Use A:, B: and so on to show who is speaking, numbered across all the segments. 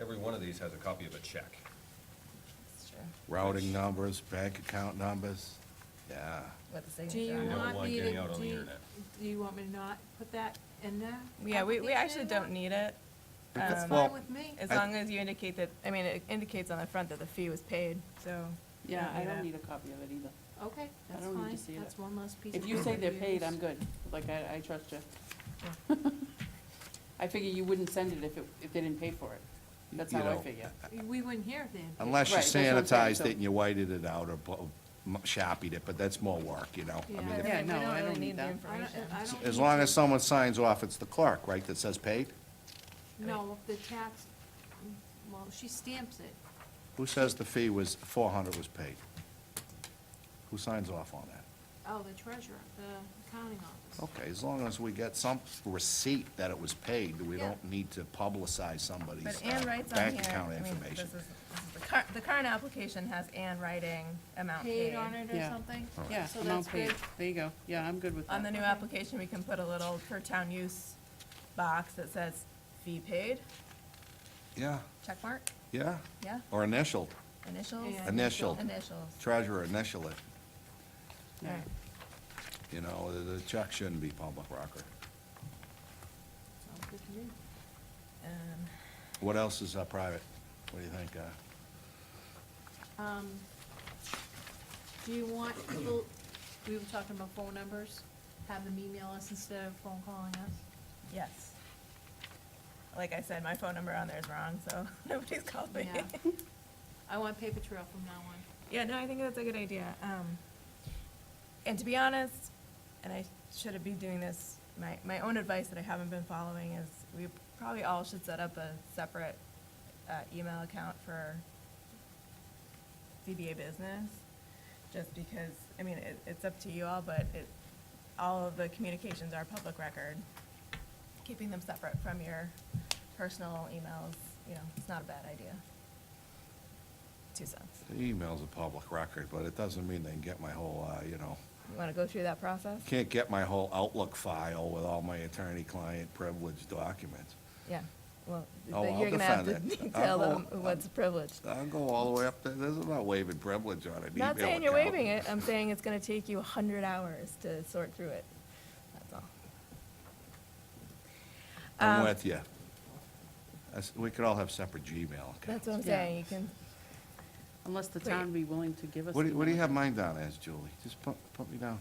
A: of these has a copy of a check.
B: That's true.
C: Routing numbers, bank account numbers, yeah.
B: What the
D: Do
B: signature
D: you
A: don't
B: on it.
D: want
A: want
D: me to,
A: getting out on
D: do,
A: the
D: you-
A: internet.
D: do you want me to not put that in there?
B: Yeah, we, we actually don't need it.
D: That's
B: Um,
C: Well,
D: fine with me.
B: As
C: I-
B: long as you indicate that, I mean, it indicates on the front that the fee was paid, so. we
E: Yeah, I
B: that.
E: don't need a copy of it either.
D: Okay, that's
E: don't need to
D: fine.
E: see
D: That's
E: that.
D: one less piece.
E: If
D: of
E: you say they're
D: paper
E: paid,
D: to
E: I'm
D: use.
E: good, like, I, I trust you. I figure you wouldn't send it if it, if they didn't pay for it. That's
C: You
E: how I
C: know,
E: figure.
D: We wouldn't hear if they had. paid.
C: Unless you
E: Right, that's what I'm saying,
C: sanitized
E: so-
C: it and you whited it out or bu- m- shopped it, but that's more work, you know? I
D: Yeah.
C: mean,
B: But
C: if-
B: we-
E: Yeah,
B: we
E: no, I
B: really
E: don't need
B: the
E: that.
D: I don't,
B: information.
D: I don't.
C: As
D: need
C: long
D: to-
C: as someone signs off, it's the clerk, right, that says paid?
D: No, if the tax, well, she stamps it.
C: Who says the fee was, four hundred was paid? Who signs off on that?
D: Oh, the treasurer, the accounting office.
E: Oh.
C: Okay, as long as we get some receipt that it was paid, we
D: Yeah.
C: don't need to publicize somebody's
B: But
C: uh,
B: Ann writes on here.
C: bank account
B: I mean, this
C: information.
B: is- this is The current, the current application has Ann writing amount
D: Paid
B: paid.
D: on it or
E: Yeah.
D: something?
E: Yeah,
D: So
E: amount
D: that's
E: paid,
D: good.
E: there you go, yeah, I'm good with that.
B: On the new
D: Okay.
B: application, we can put a little per town use box that says fee paid,
C: Yeah,
B: check mark,
C: yeah,
B: yeah,
C: or initialed,
B: initials.
D: Yeah.
C: Initial.
B: Initials.
C: treasurer initial it,
E: Yeah.
B: Alright.
C: you know, the- the check shouldn't be public record.
D: Sounds good to me.
B: Um,
C: What else is uh, private? What do you think? uh,
D: Um, Do you want people, we were talking about phone numbers, have them email us instead of phone calling us?
B: Yes. Like I said, my phone number on there is wrong, so nobody's called me.
D: Yeah. I want paper trail from now on.
B: Yeah, no, I think that's a good idea. Um, and to be honest, and I should be doing this, my, my own advice that I haven't been following is we probably all should set up a separate, uh, email account for DBA business, just because, I mean, it, it's up to you all, but it, all of the communications are public record. Keeping them separate from your personal emails, you know, it's not a bad idea. Two cents.
C: The email's a public record, but it doesn't mean they can get my whole, uh, you know,
B: You want to go through that process?
C: can't get my whole Outlook file with all my attorney-client privilege documents.
B: Yeah, well,
C: Oh,
B: but
C: I'll
B: you're gonna have to
C: defend it.
B: tell
C: I'll-
B: them what's privileged.
C: I'll go all the way up there, there's about waiving privilege on an email
B: Not saying you're
C: account.
B: waiving it, I'm saying it's gonna take you a hundred hours to sort through it, that's all.
C: I'm
B: Um,
C: with you. We could all have separate Gmail
B: That's
C: accounts.
B: what I'm
E: Yeah.
B: saying, you can,
E: Unless the
B: Wait.
E: town be willing to give us.
C: What do, you- what do you
E: email.
C: have mine down as, Julie? Just put, put me down.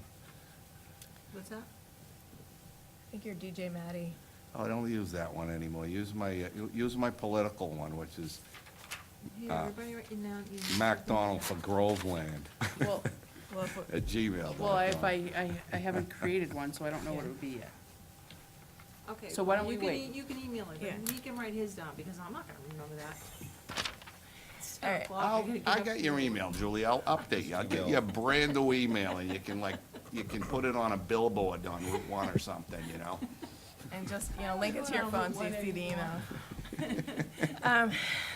D: What's that?
B: I think you're DJ Maddie.
C: Oh, I don't use that one anymore. Use my, uh, use my political one, which is
D: Hey,
C: Uh,
D: everybody write it down. you-
C: MacDonald for Groveland
E: Well,
B: Well, if we-
C: at Gmail.
E: well, if I, I, I haven't created one, so I don't know what it would be yet.
D: Okay.
E: So why don't
D: you
E: we
D: can
E: wait?
D: e- You can email it,
B: Yeah.
D: but he can write his down, because I'm not gonna remember that. It's
B: All
D: tough,
B: right,
D: Bob. I
C: I'll,
D: gotta get
C: I
D: up
C: got
D: to
C: your
D: you.
C: email, Julie. I'll update you. I'll get you a brand new email and you can like, you can put it on a billboard on Route One or something, you know?
B: and just, you know, link it to your
D: Well,
B: phone so you
D: what
B: see the
D: anymore?
B: email. Um,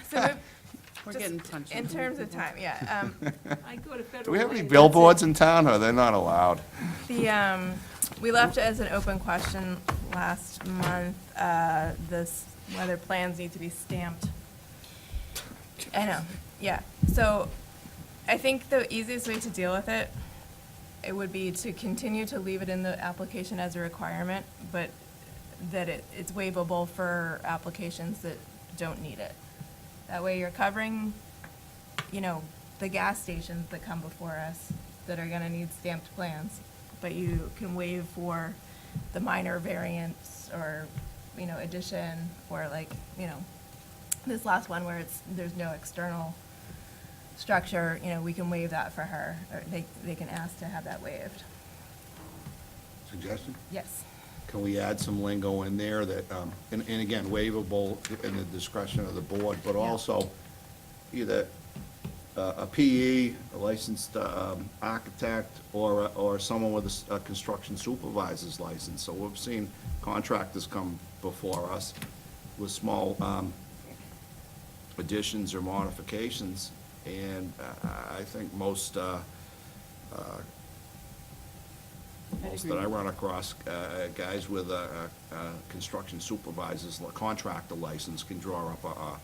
B: So, we've-
E: We're
B: Just
E: getting punched.
B: in terms of time, yeah, um,
D: I go to federal.
C: Do we have any
D: Way, that's
C: billboards in town or they're not allowed?
B: The, um, we left it as an open question last month, uh, this, whether plans need to be stamped. I know, yeah, so I think the easiest way to deal with it, it would be to continue to leave it in the application as a requirement, but that it, it's waivable for applications that don't need it. That way you're covering, you know, the gas stations that come before us that are gonna need stamped plans. But you can waive for the minor variants or, you know, addition, or like, you know, this last one where it's, there's no external structure, you know, we can waive that for her, or they, they can ask to have that waived.
C: Suggestion?
B: Yes.
C: Can we add some lingo in there that, um, and, and again, waivable in the discretion of the board, but
B: Yeah.
C: also either uh, a PE, a licensed um, architect, or, a- or someone with a s- a construction supervisor's license. So we've seen contractors come before us with small um, additions or modifications, and uh, I think most, uh, uh,
E: I'd
C: most
E: agree.
C: that I run across, uh, guys with a, a, a construction supervisor's, li- contractor license can draw up a, a,